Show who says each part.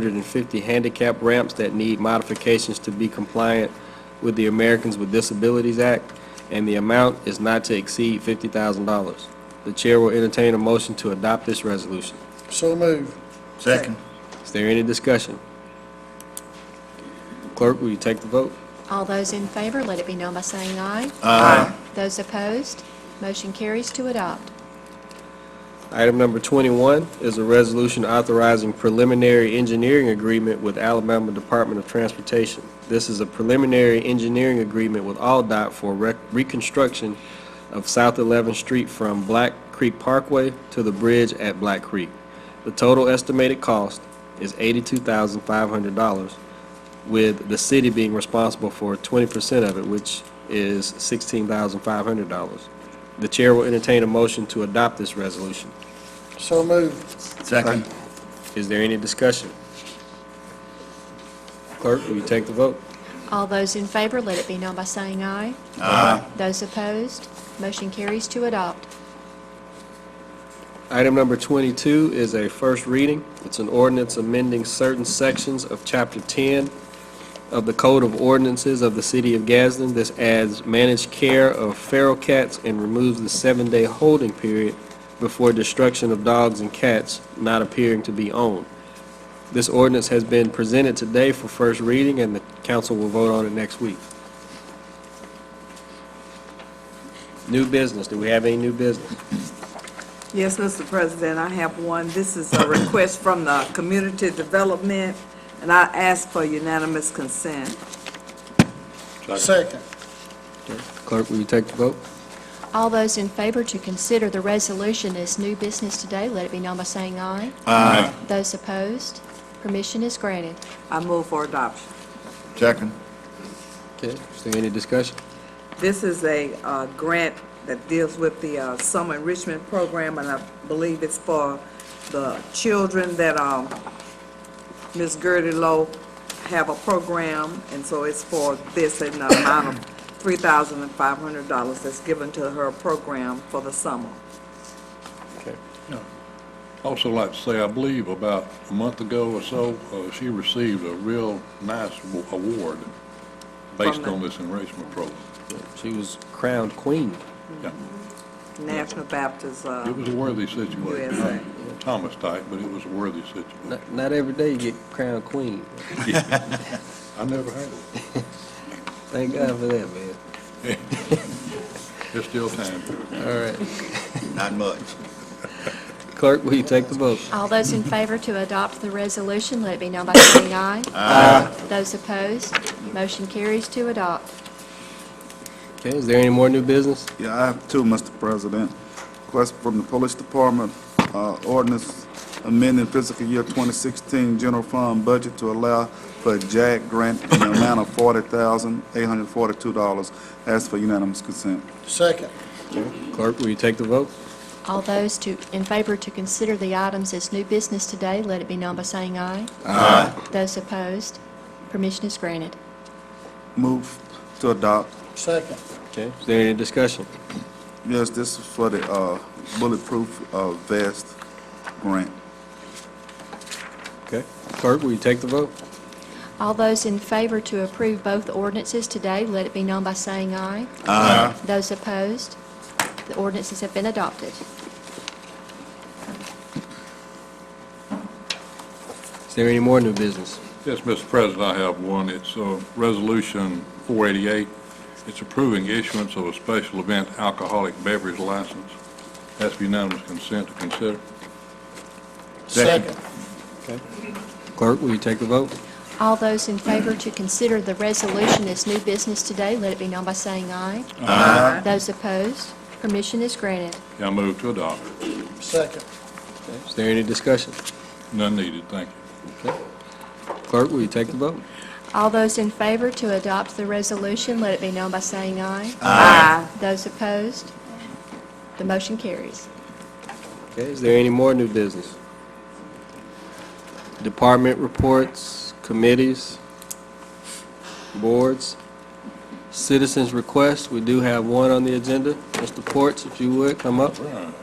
Speaker 1: 250 handicap ramps that need modifications to be compliant with the Americans with Disabilities Act, and the amount is not to exceed $50,000. The chair will entertain a motion to adopt this resolution.
Speaker 2: So move.
Speaker 3: Second.
Speaker 1: Is there any discussion? Clerk, will you take the vote?
Speaker 4: All those in favor, let it be known by saying aye. Those opposed, motion carries to adopt.
Speaker 1: Item number 21 is a resolution authorizing preliminary engineering agreement with Alabama Department of Transportation. This is a preliminary engineering agreement with AlDOT for rec- reconstruction of South 11th Street from Black Creek Parkway to the bridge at Black Creek. The total estimated cost is $82,500, with the city being responsible for 20% of it, which is $16,500. The chair will entertain a motion to adopt this resolution.
Speaker 2: So move.
Speaker 3: Second.
Speaker 1: Is there any discussion? Clerk, will you take the vote?
Speaker 4: All those in favor, let it be known by saying aye. Those opposed, motion carries to adopt.
Speaker 1: Item number 22 is a first reading. It's an ordinance amending certain sections of Chapter 10 of the Code of Ordinances of the City of Gadsden. This adds managed care of feral cats and removes the seven-day holding period before destruction of dogs and cats not appearing to be owned. This ordinance has been presented today for first reading, and the council will vote on it next week. New business. Do we have any new business?
Speaker 5: Yes, Mr. President, I have one. This is a request from the Community Development, and I ask for unanimous consent.
Speaker 2: Second.
Speaker 1: Clerk, will you take the vote?
Speaker 4: All those in favor to consider the resolution as new business today, let it be known by saying aye.
Speaker 3: Aye.
Speaker 4: Those opposed, permission is granted.
Speaker 5: I move for adoption.
Speaker 3: Second.
Speaker 1: Okay, is there any discussion?
Speaker 5: This is a uh, grant that deals with the uh, summer enrichment program, and I believe it's for the children that um, Ms. Gertie Lowe have a program, and so it's for this in the amount of $3,500 that's given to her program for the summer.
Speaker 6: Also like to say, I believe about a month ago or so, uh, she received a real nice wa- award based
Speaker 5: From the-
Speaker 6: on this enrichment program.
Speaker 1: She was crowned queen.
Speaker 6: Yeah,
Speaker 5: National Baptist, uh,
Speaker 6: It was a worthy situation.
Speaker 5: USA.
Speaker 6: Not Thomas type, but it was a worthy situation.
Speaker 1: Not, not every day you get crowned queen.
Speaker 6: I never heard of it.
Speaker 1: Thank God for that, man.
Speaker 6: There's still time.
Speaker 1: All right.
Speaker 3: Not much.
Speaker 1: Clerk, will you take the vote?
Speaker 4: All those in favor to adopt the resolution, let it be known by saying aye. Aye. Those opposed, motion carries to adopt.
Speaker 1: Okay, is there any more new business?
Speaker 7: Yeah, I have two, Mr. President. Request from the Police Department, uh, ordinance amending fiscal year 2016 general fund budget to allow for a JAG grant in the amount of $40,842. Ask for unanimous consent.
Speaker 2: Second.
Speaker 1: Clerk, will you take the vote?
Speaker 4: All those to, in favor to consider the items as new business today, let it be known by saying aye. Aye. Those opposed, permission is granted.
Speaker 7: Move to adopt.
Speaker 2: Second.
Speaker 1: Okay, is there any discussion?
Speaker 7: Yes, this is for the uh, bulletproof uh, vest grant.
Speaker 1: Okay. Clerk, will you take the vote?
Speaker 4: All those in favor to approve both ordinances today, let it be known by saying aye. Aye. Those opposed, the ordinances have been adopted.
Speaker 1: Is there any more new business?
Speaker 6: Yes, Mr. President, I have one. It's uh, Resolution 488. It's approving issuance of a special event alcoholic beverage license. Has to be unanimous consent to consider.
Speaker 2: Second.
Speaker 1: Clerk, will you take the vote?
Speaker 4: All those in favor to consider the resolution as new business today, let it be known by saying aye. Aye. Those opposed, permission is granted.
Speaker 6: Yeah, I move to adopt.
Speaker 2: Second.
Speaker 1: Is there any discussion?
Speaker 6: None needed, thank you.
Speaker 1: Clerk, will you take the vote?
Speaker 4: All those in favor to adopt the resolution, let it be known by saying aye.
Speaker 5: Aye.
Speaker 4: Those opposed, the motion carries.
Speaker 1: Okay, is there any more new business? Department reports, committees, boards, citizens' requests. We do have one on the agenda. Mr. Ports, if you would, come up.
Speaker 6: Right.